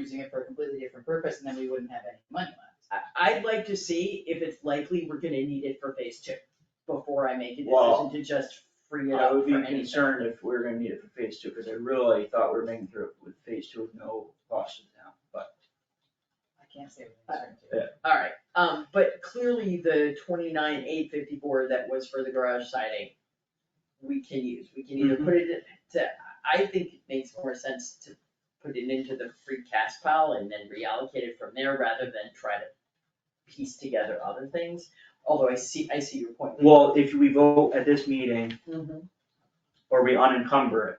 using it for a completely different purpose, and then we wouldn't have any money left. I, would like to see if it's likely we're gonna need it for phase two, before I make a Well, decision to just free it I up would for be anything. concerned if we are gonna need it for phase two, cause I really thought we were making through it with phase two with no cost to the town, but I can't say with certainty. Alright, um, but clearly the twenty-nine eight fifty-four that was for the garage siding, we can use, we can Mm-hmm. either put it in- to, I think it makes more sense to put it into the free cash pile and then reallocate it from there rather than try to piece together other things, although I see, I see your point. Well, if we vote at this meeting Mhm. or we unencumber it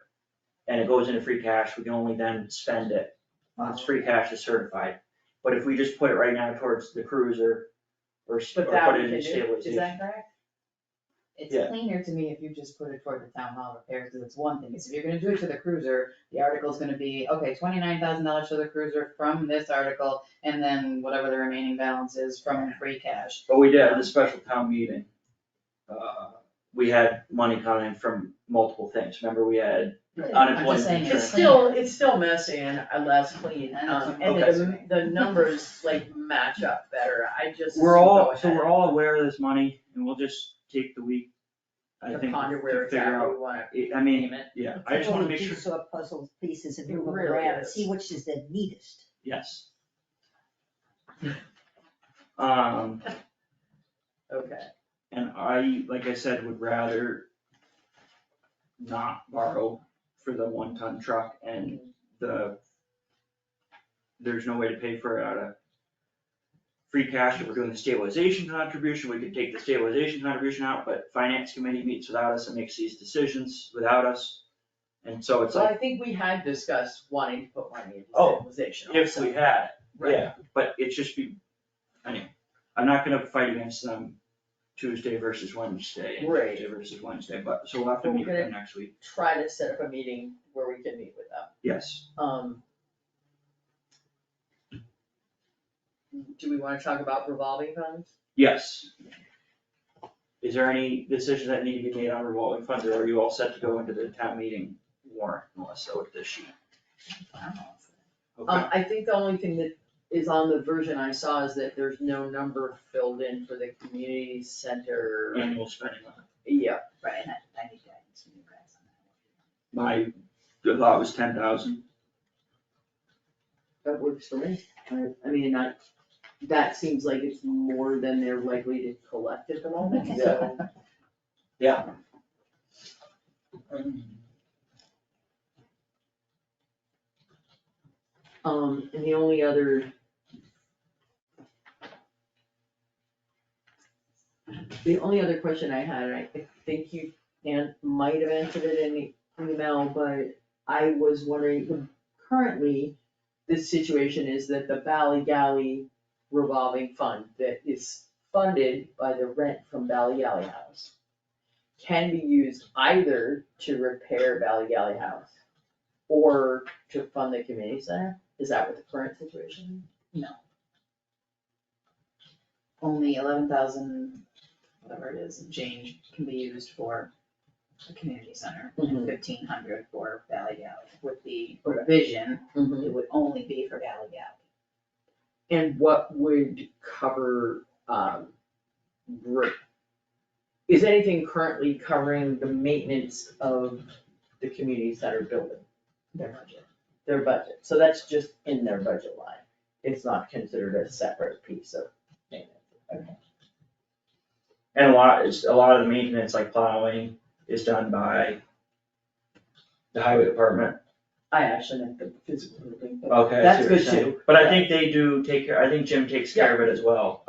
and it goes into free cash, we can only then spend it once free cash is certified. But if we just put it right now towards the cruiser or s- or But that put we it can in do, is that stabilization. correct? Yeah. It's cleaner to me if you just put it toward the town hall repairs, cause it's one thing, is if you're gonna do it to the cruiser, the article's gonna be, okay, twenty-nine thousand dollars for the cruiser from this article, and then whatever the remaining balance is from free cash. But we did at the special town meeting. uh, We had money coming from multiple things. Remember, we had I'm unemployment just saying insurance. It's still, it's still messy and uh, less clean, And it's um, and the, okay. the numbers like match up better, I just. We're go all, so ahead. we're all aware of this money and we'll just take the week, I to think, ponder to where figure exactly out. we wanna I- I mean, name it. yeah, I just wanna make sure, It's all puzzle pieces and It move them really around, and is. see which is the neatest. yes. Um, Okay, and I, like I said, would rather not borrow for the one-ton truck and the, there's no way to pay for it out of free cash, if we're doing the stabilization contribution, we could take the stabilization contribution out, but finance committee meets without us and makes these decisions without us. And so it's so like, I think we had discussed wanting to put money into Oh, stabilization if we also. had, Right. yeah, but it's just be, anyway, I'm not gonna fight against them Tuesday versus Wednesday, and Right. Tuesday versus Wednesday, but, so we'll have to Well, meet we're with them next week, Try to set up a meeting where we can meet with them, yes. um. Do we wanna talk about um, revolving funds? Yes. Is there any decisions that need to be made on revolving funds, or are you all set to go into the town meeting warrant, Melissa, with this sheet? Okay, Um, I think the only thing that is on the version I saw is that there's no number filled in for the community center. annual spending limit. Yeah, Right, and I, I need guidance from you guys on that. My good thought was ten thousand. that works for me. I, I mean, I, that seems like it's more than they're likely to collect at the moment, so. Um, and the only other. The only other question I had, and I think you, Dan, might have answered it in the email, but I was wondering, currently, the situation is that the Valley Galley revolving fund that is funded by the rent from Valley Galley House can be used either to repair Valley Galley House or to fund the community center? Is that what the current situation? Only eleven thousand, whatever it is, and change can be used for the community center, and Mhm. fifteen hundred for Valley Galley, with the Okay. provision, is? it would only be for Valley Galley. And what would cover, um, re- is anything currently covering the maintenance of the community center building? their budget. their budget, so that's just in their budget line. It's not considered a separate piece of maintenance. And a lot, it's, a lot of the maintenance, like plowing, is done by the highway department. I actually meant the physical building, but Okay. that's good too. But I think they do take care, I think Jim takes care of it as well.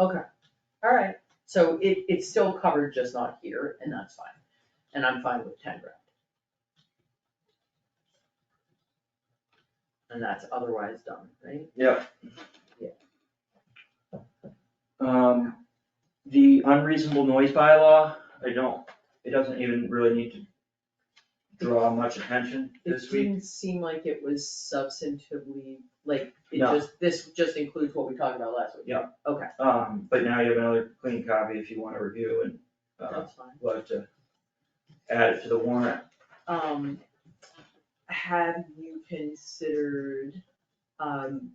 Alright, so it, it's still covered, just not here, and that's fine, and I'm fine with ten grand. And that's otherwise done, right? Um, the unreasonable noise bylaw, I don't, it doesn't even really need to draw much attention this It week. didn't seem like it was substantively, like, it No. just, this just includes what we talked about last week. Yeah. Okay, Um, but now you have another clean copy if you wanna review and, uh, that's fine. we'll have to add it to the warrant. um, have you considered, um,